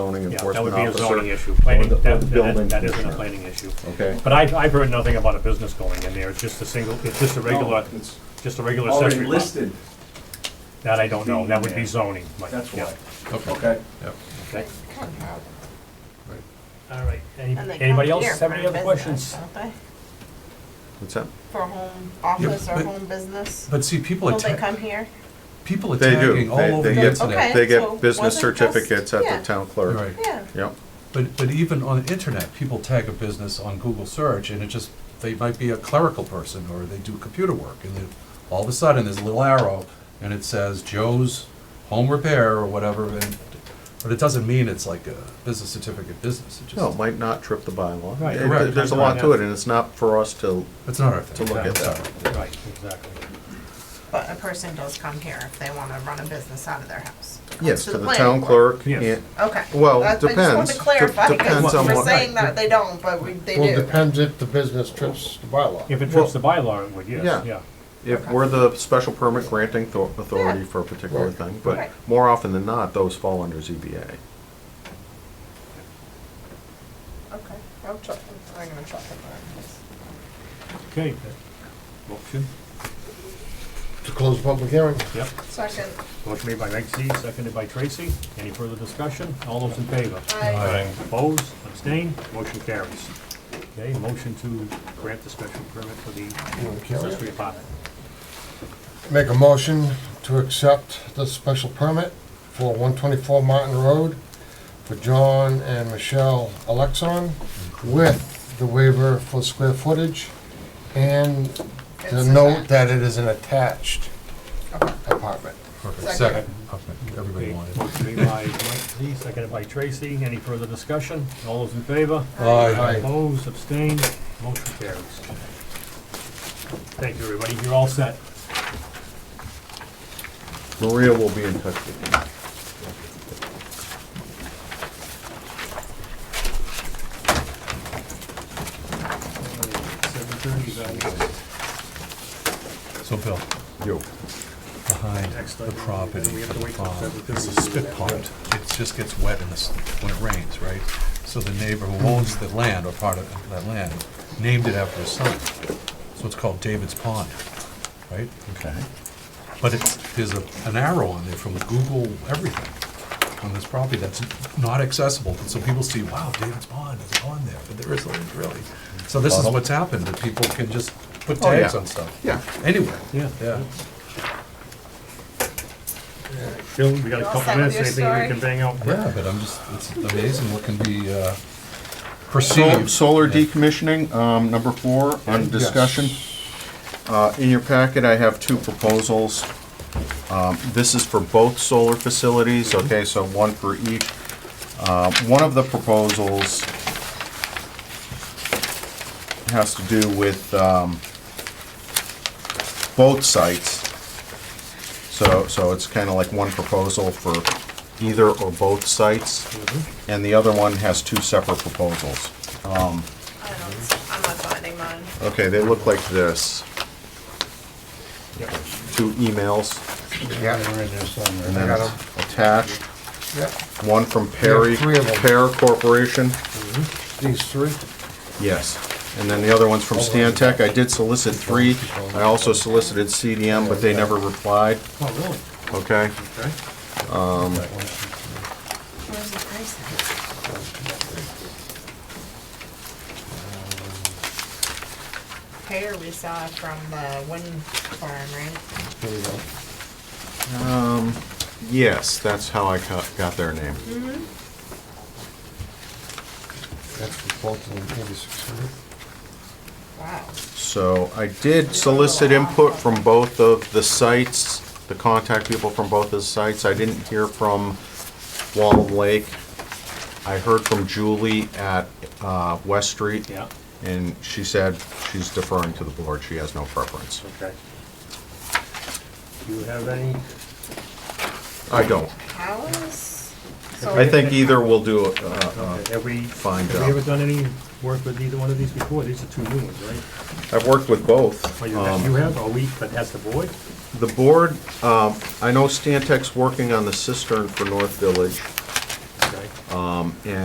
zoning Yeah, that would enforcement be a officer. zoning issue. or Planning, the- or that, the that building that isn't a commissioner. planning issue. Okay, But I've, I've heard nothing about a business going in there. It's just a single, it's just a regular, No, It's just a regular already accessory lot. listed, That I don't know. That would be zoning, Mike. that's Yeah, why. Okay. Okay. Yep. Okay. Right. All right. Any- And they come Anybody here else have for any other business, questions? don't they? what's that? For home office or but- home business? But see, people Will they attack, come here? people They do. attacking all They- over they the get- internet. Okay. They so get business wasn't just- certificates at yeah. the town clerk. Right. Yeah. Yep, But, but even on the internet, people tag a business on Google search and it just, they might be a clerical person or they do computer work. And then all of a sudden, there's a little arrow and it says Joe's Home Repair or whatever. And, but it doesn't mean it's like a business certificate business. It no, it just, might not trip the bylaw. Right. It- Correct. There's a lot to it, and it's not for us to, it's not our to thing. look at Sorry. that. Right, exactly. But a person does come here if they wanna run a business out of their house. It comes Yes, to the the planning town board. clerk. Yes. and- Okay. Well, That's- I just wanted depends. to clarify, Dep- depends because on we're what- saying that they don't, but we, they do. Well, depends if the business trips the bylaw. If it Well- trips the bylaw, it would, yes, Yeah. yeah. If we're the special permit granting thor- authority Yeah. for a particular Right. thing, but Right. more often than not, those fall under ZBA. Okay, I'll check, it. I'm gonna check it. Okay. Motion? To close the public hearing, Yep. Second, Motion made by Reg Z, seconded by Tracy. Any further discussion? All those in favor? I, Opposed, abstained, motion carries. Okay, motion to grant the special permit for the accessory apartment. make a motion to accept the special permit for one twenty-four Martin Road for John and Michelle Alexon with the waiver for square footage and the It's note that it is an attached apartment. Perfect. Second. Second. Okay. Everybody Okay, wanted. it. Motion made by Mike Z, seconded by Tracy. Any further discussion? All those in favor? Aye. Opposed, abstained, motion carries. Thank you, everybody. You're all set. Maria will be in touch with you. Seven thirty is our next- So Bill, You. behind next the item, and property then we have for to the wait till farm, 7:30 it's to a do spit that. pond. It just gets wet in the, s- when it rains, right? So the neighbor who owns the land, or part of that land, named it after his son. So it's called David's Pond, right? Okay. But it's, there's a, an arrow on there from Google everything on this property that's not accessible. And so people see, wow, David's Pond is on there, but there isn't really. So this is what's happened, that people can just put Oh, tags yeah. on stuff, Yeah. anywhere. Yeah. Yeah. Bill, we got a You all couple set with minutes. your Anything we story? can bang out? Yeah, but I'm just, it's amazing what can be uh, Sol- perceived. Solar decommissioning, um, number four, on discussion. Uh, In your packet, I have two proposals. Um, This is for both solar facilities, okay, so one for each. Uh, One of the proposals has to do with um, both sites. So, so it's kind of like one proposal for either or both sites. And the other one has two separate proposals. I don't, I'm not finding mine. Okay, they look like this. Two emails, Yeah. and I then got 'em. it's attached, Yeah, one from Perry, three of 'em. Pear Corporation, these three. yes. And then the other one's from Stantec. I did solicit three. I also solicited CDM, but they never replied, Oh, really? okay? Okay. Where's the price at? Pear we saw from the wind farm, right? Here we go. Yes, that's how I got, got their name. That's for both of them, eighty-six hundred. Wow. So I did solicit input from both of the sites, the contact people from both of the sites. I didn't hear from Wall Lake. I heard from Julie at uh, West Street. Yeah, And she said she's deferring to the board. She has no preference. okay. Do you have any? I don't. How is? so I think either will do, uh, uh, Have we, Fine have we job. ever done any work with either one of these before? These are two new ones, right? I've worked with both. Well, Oh, you Um, have, you have, or we, but has the board? The board, um, I know Stantec's working on the cistern for North Village. Okay. Um, And